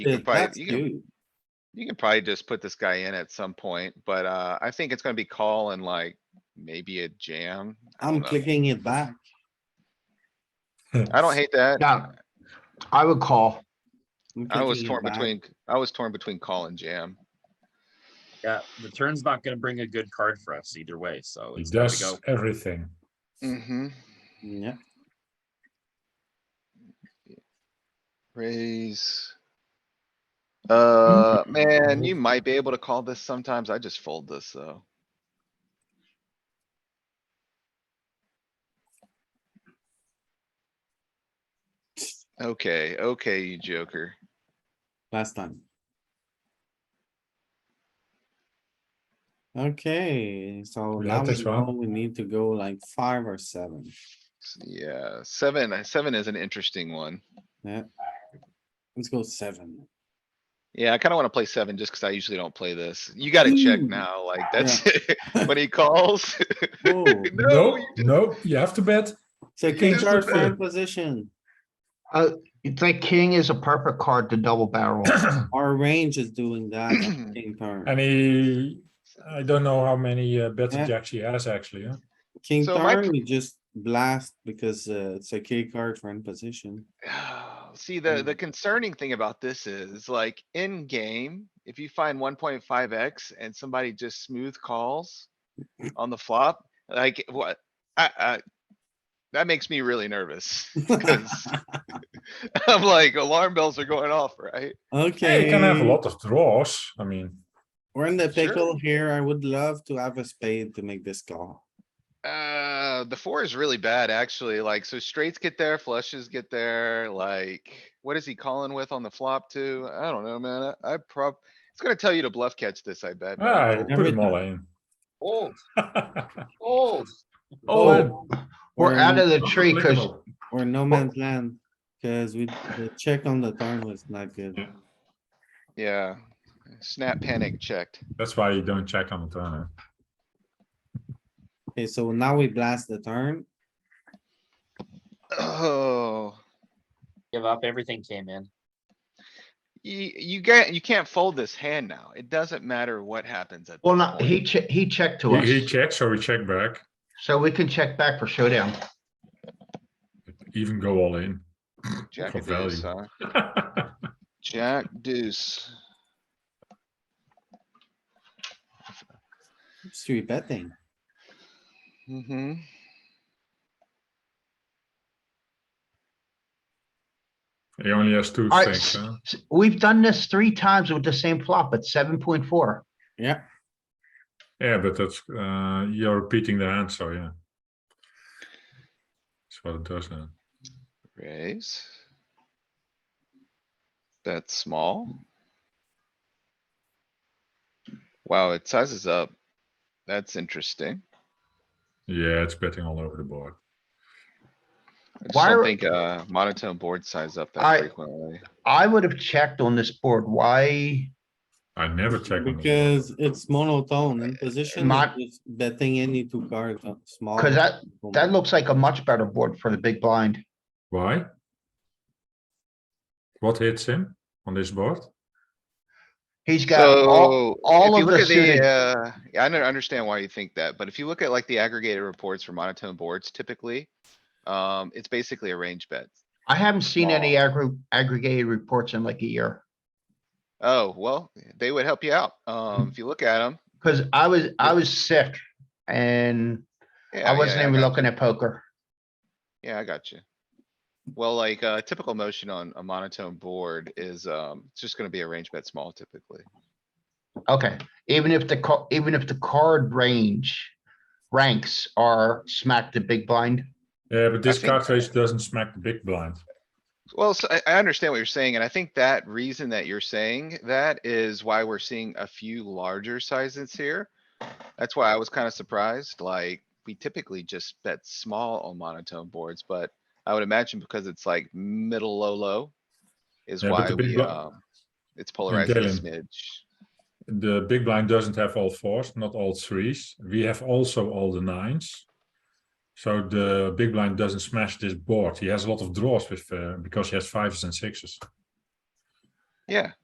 You can Dude, probably, that's you can, huge. you can probably just put this guy in at some point, but, uh, I think it's gonna be call and like maybe a jam. I I'm don't know. clicking it back. I don't hate that. Yeah, I would call. I'm I was clicking it torn back. between, I was torn between call and jam. Yeah, the turn's not gonna bring a good card for us either way, so It it's gotta does go. everything. Mm-hmm. Yeah, Raise. Mm-hmm. Uh, man, you might be able to call this sometimes. I just fold this, though. Okay, okay, you joker. last time. Okay, so We now had we this know one. we need to go like five or seven. S- Yeah, seven, uh, seven is an interesting one. Let's go seven. Yeah, I kinda wanna play seven just cuz I usually don't play this. You gotta check Ooh. now, like that's, when he calls. Oh, No, No, no, you have to bet. it's a king charge for position. You'd think king is a perfect card to double barrel. Oh, Our range is doing that. on King turn. And he, I don't know how many uh, bets Yeah. jacks he has actually. huh? King So my- turn, we just blast because uh, it's a key card for in position. See, the, Mm. the concerning thing about this is like in game, if you find one point five X and somebody just smooth calls on the flop, like what, I, I, that makes me really nervous. 'cause I'm like alarm bells are going off, right? Yeah, Okay. you can have a lot of draws. I mean, We're in the Sure. pickle here. I would love to have a spade to make this call. Uh, the four is really bad, actually. Like, so straights get there, flushes get there, like, what is he calling with on the flop too? I don't know, man. I I prob, it's gonna tell you to bluff catch this, I bet. but I I don't- put them all in. Old, old. All in. Oh, we're out of the tree because Unbelievable. Or no man's land, cuz we, the check on the turn was not good. Yeah. Yeah, snap panic checked. That's why you don't check on the turn. huh? Okay, so now we blast the turn. Oh, Give up, everything came in. you, you get, you can't fold this hand now. It doesn't matter what happens at. well, this no, point. he che- he checked to us, He, he checks, so we check back, so we can check back for showdown. even go all in. Jack for of deuce, value. huh? Jack deuce. Street betting. Mm-hmm. He only has two Alright, things. huh? s- We've done this three times with the same flop at seven point four. Yeah, Yeah, but that's, uh, you're repeating the hand, so yeah. That's what it does now. Raise. That's small. Wow, it sizes up. That's interesting. Yeah, it's betting all over the board. I just Why don't are- think, uh, monotone board size up that I- frequently. I would have checked on this board. Why? I never check on the because it's monotone in position, Mon- it's betting any two cards, uh, small. Cause that, that looks like a much better board for the big blind. Why? What hits him on this board? He's got all, So, all if you of the look at the, suited- uh, yeah, I don't understand why you think that, but if you look at like the aggregated reports for monotone boards typically, um, it's basically a range bet. I haven't seen any small. aggr- aggregated reports in like a year. Oh, well, they would help you out. Um, if you look at them. Cause I was, I was sick and Oh, I wasn't even looking at poker. Yeah, I got you. Well, like, uh, typical motion on a monotone board is, um, it's just gonna be a range bet small typically. Okay, even if the, ca- even if the card range ranks are smack the big blind. Yeah, but this think- card face doesn't smack the big blind. Well, so I, I understand what you're saying, and I think that reason that you're saying that is why we're seeing a few larger sizes here. That's why I was kinda surprised, like, we typically just bet small on monotone boards, but I would imagine because it's like middle, low, low. Is Yeah, but why the big we, blo- um, it's polarized a Dylan. smidge. The big blind doesn't have all fours, not all threes. We have also all the nines. So the big blind doesn't smash this board. He has a lot of draws with, uh, because he has fives and sixes. Yeah.